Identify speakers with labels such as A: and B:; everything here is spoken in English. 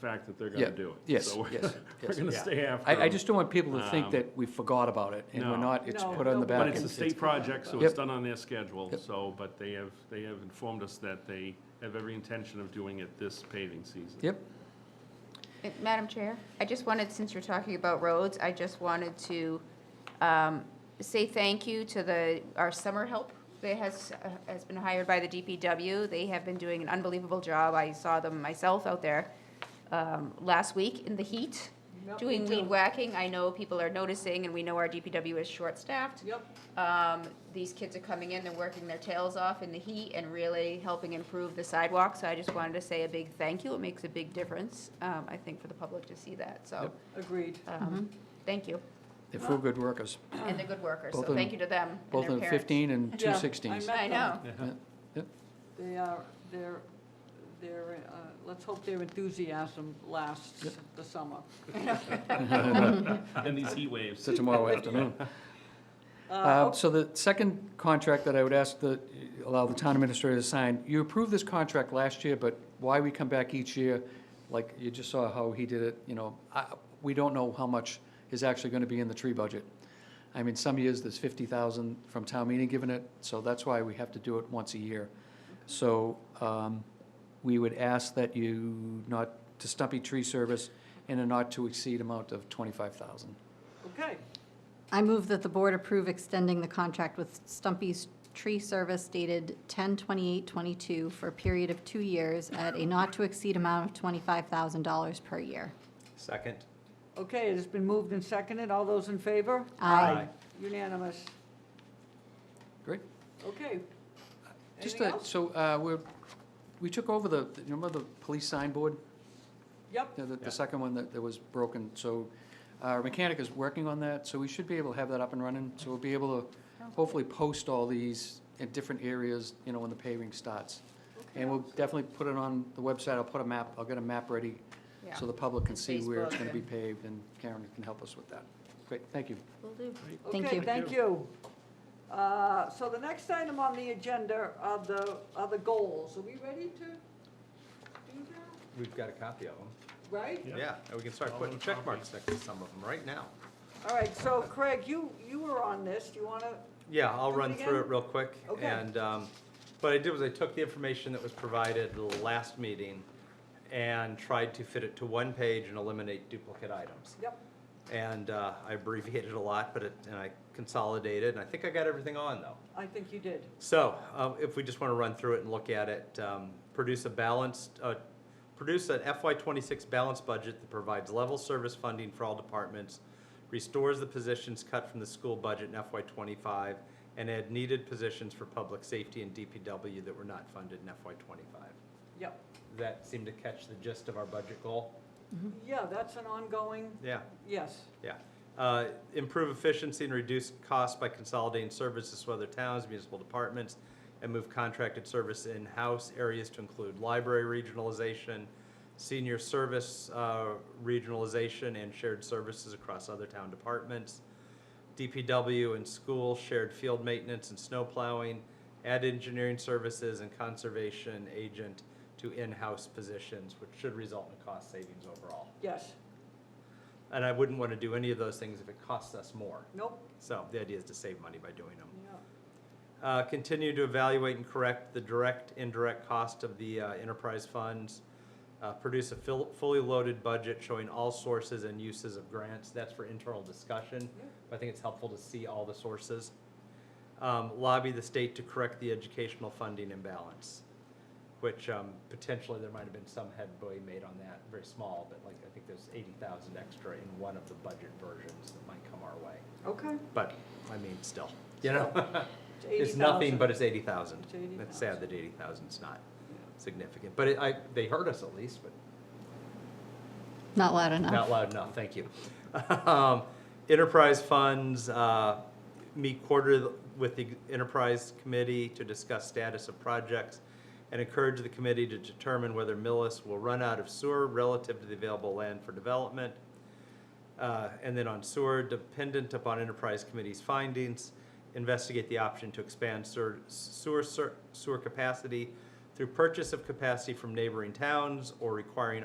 A: fact that they're
B: Yeah,
A: gonna do it.
B: yes,
A: So we're-
B: yes,
A: We're
B: yes.
A: gonna
C: Yeah.
A: stay after
B: I, I
A: them.
B: just don't want people to think
A: Um,
B: that we forgot about it, and we're
A: no.
B: not, it's
C: No,
B: put on the
C: don't-
B: back.
A: But it's
B: end.
A: a state project, so
B: Yep.
A: it's done on their schedule,
B: Yep.
A: so, but they have, they have informed us that they have every intention of doing it this paving season.
B: Yep,
D: Uh, Madam Chair, I just wanted, since you're talking about roads, I just wanted to um, say thank you to the, our summer help that has, uh, has been hired by the DPW. They have been doing an unbelievable job. I saw them myself out there um, last week in the heat,
C: Yep, Oh, me
D: doing
C: too.
D: weed whacking. I know people are noticing, and we know our DPW is short-staffed.
C: Yep,
D: Um, These kids are coming in, they're working their tails off in the heat and really helping improve the sidewalks. So I just wanted to say a big thank you. It makes a big difference, um, I think, for the public to see that, so,
C: agreed.
D: um,
E: Mm-hmm.
D: thank you.
B: they're full good workers,
D: And they're good workers,
B: Both
D: so
B: of
D: thank you
B: them-
D: to them and
B: both
D: their
B: in
D: parents.
B: fifteen and
C: Yeah,
B: two
C: I
B: sixteens.
C: met
D: I know.
C: They are, they're, they're, uh, let's hope their enthusiasm lasts
B: Yep.
C: the summer.
A: And these heat waves.
B: So tomorrow afternoon. Uh, So the second contract that I would ask the, allow the town administrator to sign, you approved this contract last year, but why we come back each year, like you just saw how he did it, you know, I, we don't know how much is actually gonna be in the tree budget. I mean, some years there's fifty thousand from town meeting given it, so that's why we have to do it once a year. So, um, we would ask that you not, to stumpy tree service in a not to exceed amount of twenty-five thousand.
C: oh, Okay,
E: I move that the board approve extending the contract with Stumpy's Tree Service dated 10/28/22 for a period of two years at a not-to-exceed amount of $25,000 per year.
F: Second.
C: okay, it has been moved and seconded. All those in favor?
E: Aye.
C: Unanimous.
B: Great.
C: Okay.
B: Just
C: Anything
B: a-
C: else?
B: So, uh, we're, we took over the, the- remember the police signboard,
C: Yep,
B: the, the-
A: Yeah.
B: the second one that, that was broken? So uh, our mechanic is working on that, so we should be able to have that up and running. So we'll be able to hopefully post all these in different areas, you know, when the paving starts. And we'll definitely put it on the website. I'll put a map, I'll get a map ready
D: Yeah.
B: so the public can see where it's
D: Facebook
B: gonna be
D: and-
B: paved and Karen can help us with that. Great, thank you.
E: Thank
C: okay,
E: you.
C: thank you. Uh, So the next item on the agenda are the, are the goals. Are we ready to do that?
F: We've got a copy of them.
C: Right?
A: Yeah.
F: Yeah, and we can start putting check marks next to some of them right now.
C: All right, so Craig, you, you were on this. Do you want to?
F: Yeah, I'll
C: Do it
F: run through
C: again?
F: it real quick.
C: Okay.
F: And um, what I did was I took the information that was provided last meeting and tried to fit it to one page and eliminate duplicate items.
C: Yep,
F: And uh, I abbreviated a lot, but it, and I consolidated, and I think I got everything on, though.
C: I think you did.
F: So, um, if we just want to run through it and look at it, um, produce a balanced, uh, produce an FY twenty-six balanced budget that provides level service funding for all departments, restores the positions cut from the school budget in FY twenty-five, and add needed positions for public safety and DPW that were not funded in FY twenty-five.
C: Yep.
F: That seemed to catch the gist of our budget goal?
C: Yeah, that's an ongoing,
F: Yeah.
C: yes.
F: Yeah. Uh, Improve efficiency and reduce costs by consolidating services with other towns, municipal departments, and move contracted service in-house areas to include library regionalization, senior service uh, regionalization, and shared services across other town departments. DPW and school, shared field maintenance and snow plowing, add engineering services and conservation agent to in-house positions, which should result in cost savings overall.
C: Yes,
F: And I wouldn't want to do any of those things if it costs us more.
C: nope,
F: So the idea is to save money by doing them.
C: yeah,
F: Uh, Continue to evaluate and correct the direct, indirect cost of the uh, enterprise funds. Uh, Produce a fill- fully loaded budget showing all sources and uses of grants. That's for internal discussion.
C: Yeah.
F: but I think it's helpful to see all the sources. Um, Lobby the state to correct the educational funding imbalance, which um, potentially there might have been some headway made on that, very small, but like, I think there's 80,000 extra in one of the budget versions that might come our way.
C: okay.
F: But, I mean, still, you know? It's
C: 80,000.
F: nothing, but it's eighty thousand.
C: It's 80,000.
F: It's sad that eighty thousand's not significant, but it, I, they hurt us at least, but
E: Not loud
F: not
E: enough.
F: loud enough, thank you. Um, Enterprise funds, uh, meet quarter with the enterprise committee to discuss status of projects and encourage the committee to determine whether Millis will run out of sewer relative to the available land for development. Uh, And then on sewer, dependent upon enterprise committee's findings, investigate the option to expand sewer, sewer, sewer capacity through purchase of capacity from neighboring towns or requiring